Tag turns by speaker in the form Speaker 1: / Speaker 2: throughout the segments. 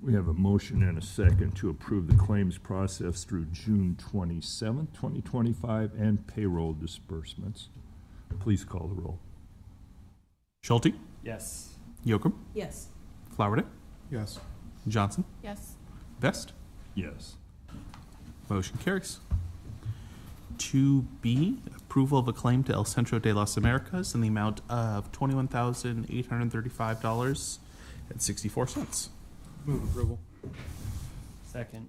Speaker 1: We have a motion and a second to approve the claims process through June twenty-seventh, twenty twenty-five, and payroll disbursements. Please call the roll.
Speaker 2: Schulte,
Speaker 3: Yes.
Speaker 2: Yocum,
Speaker 4: Yes.
Speaker 2: Flowerday,
Speaker 5: yes,
Speaker 2: Johnson,
Speaker 4: Yes.
Speaker 2: Vest.
Speaker 1: Yes.
Speaker 2: Motion carries. Two B, approval of a claim to El Centro de las Americas in the amount of twenty-one thousand eight hundred thirty-five dollars and sixty-four cents.
Speaker 5: move approval,
Speaker 3: Second.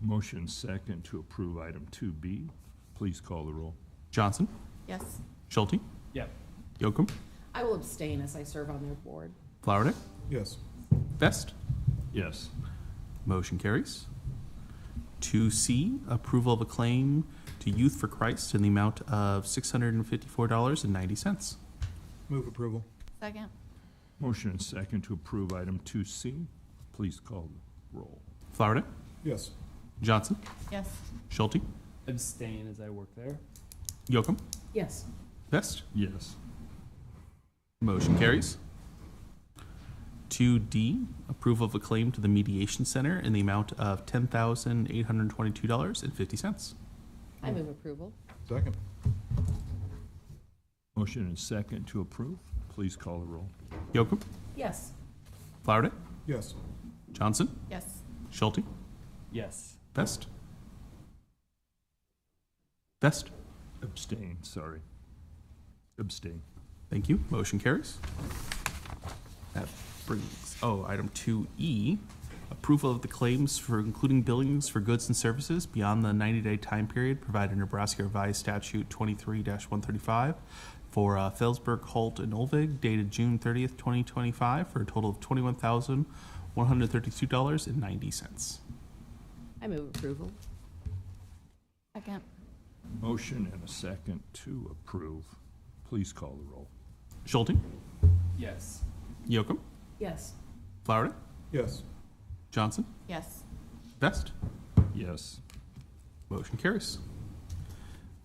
Speaker 1: Motion second to approve item two B. Please call the roll.
Speaker 2: Johnson,
Speaker 4: Yes.
Speaker 2: Schulte,
Speaker 3: Yep.
Speaker 2: Yocum,
Speaker 4: I will abstain as I serve on their board.
Speaker 2: Flowerday,
Speaker 5: yes,
Speaker 2: Vest.
Speaker 1: Yes.
Speaker 2: Motion carries. Two C, approval of a claim to Youth for Christ in the amount of six hundred and fifty-four dollars and ninety cents.
Speaker 5: move approval,
Speaker 4: Second.
Speaker 1: Motion and second to approve item two C. Please call the roll.
Speaker 2: Flowerday,
Speaker 5: yes,
Speaker 2: Johnson,
Speaker 4: Yes.
Speaker 2: Schulte,
Speaker 3: Abstain as I work there.
Speaker 2: Yocum,
Speaker 4: Yes.
Speaker 2: Vest.
Speaker 1: Yes.
Speaker 2: Motion carries. Two D, approval of a claim to the Mediation Center in the amount of ten thousand eight hundred twenty-two dollars and fifty cents.
Speaker 4: I move approval.
Speaker 5: second,
Speaker 1: Motion and second to approve. Please call the roll.
Speaker 2: Yocum,
Speaker 4: Yes.
Speaker 2: Flowerday,
Speaker 5: yes,
Speaker 2: Johnson,
Speaker 4: Yes.
Speaker 2: Schulte,
Speaker 3: Yes.
Speaker 2: Vest. Vest,
Speaker 1: Abstain, sorry. Abstain.
Speaker 2: thank you. Motion carries. That brings, oh, item two E, approval of the claims for including billings for goods and services beyond the ninety-day time period provided in Nebraska Revised Statute twenty-three one thirty-five for uh, Felsberg, Holt, and Olvig dated June thirtieth, twenty twenty-five, for a total of twenty-one thousand one hundred thirty-two dollars and ninety cents.
Speaker 4: I move approval. Second.
Speaker 1: Motion and a second to approve. Please call the roll.
Speaker 2: Schulte,
Speaker 3: Yes.
Speaker 2: Yocum,
Speaker 4: Yes.
Speaker 2: Flowerday,
Speaker 5: yes,
Speaker 2: Johnson,
Speaker 4: Yes.
Speaker 2: Vest.
Speaker 1: Yes.
Speaker 2: Motion carries.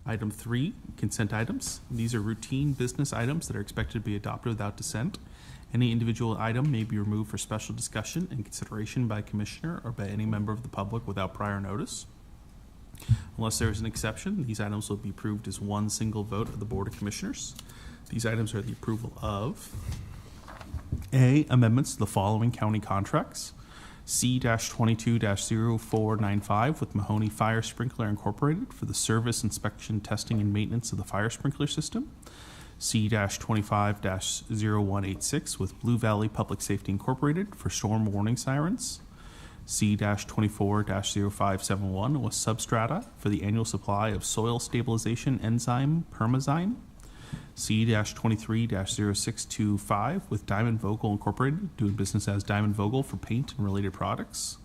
Speaker 2: Item three, consent items. These are routine business items that are expected to be adopted without dissent. Any individual item may be removed for special discussion and consideration by a commissioner or by any member of the public without prior notice. Unless there is an exception, these items will be approved as one single vote of the Board of Commissioners. These items are the approval of A, amendments to the following county contracts. C twenty-two 495 with Mahoney Fire Sprinkler Incorporated for the service inspection, testing, and maintenance of the fire sprinkler system. C twenty-five 186 with Blue Valley Public Safety Incorporated for storm warning sirens. C twenty-four 571 with Substrata for the annual supply of soil stabilization enzyme Permazyme. C twenty-three 625 with Diamond Vogel Incorporated, doing business as Diamond Vogel for paint and related products.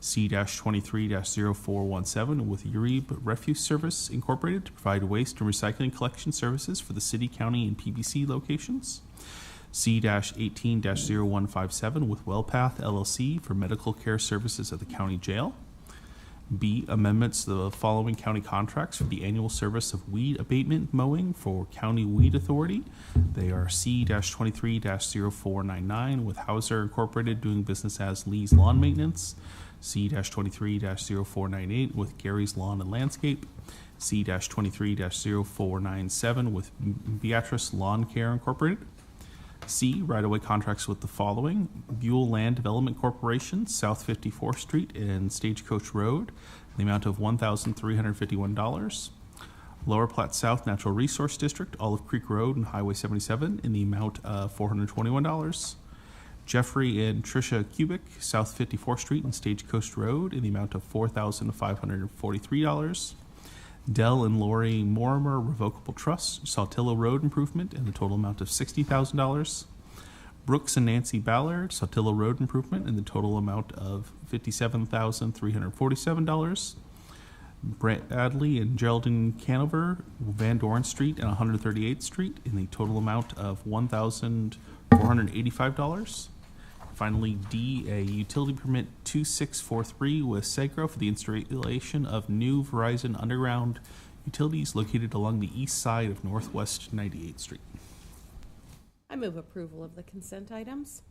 Speaker 2: C twenty-three 417 with Uribe Refuse Service Incorporated to provide waste and recycling collection services for the city, county, and PBC locations. C eighteen 157 with Wellpath LLC for medical care services at the county jail. B, amendments to the following county contracts for the annual service of weed abatement mowing for County Weed Authority. They are C twenty-three 499 with Hauser Incorporated doing business as Lee's Lawn Maintenance. C twenty-three 498 with Gary's Lawn and Landscape. C twenty-three 497 with Beatrice Lawn Care Incorporated. C, right-of-way contracts with the following: Buell Land Development Corporation, South 54th Street and Stagecoach Road, in the amount of $1,351. Lower Platte South Natural Resource District, Olive Creek Road and Highway 77, in the amount of $421. Jeffrey and Tricia Cubic, South 54th Street and Stagecoach Road, in the amount of $4,543. Dell and Lori Morimer Revocable Trust, Saltillo Road Improvement, in the total amount of sixty thousand dollars. Brooks and Nancy Ballard, Saltillo Road Improvement, in the total amount of fifty-seven thousand three hundred forty-seven dollars. Brett Adley and Geraldine Canover, Van Doren Street and one hundred thirty-eighth Street, in the total amount of one thousand four hundred eighty-five dollars. Finally, D, a utility permit 2643 with Segro for the installation of new Verizon underground utilities located along the east side of Northwest 98th Street.
Speaker 4: I move approval of the consent items.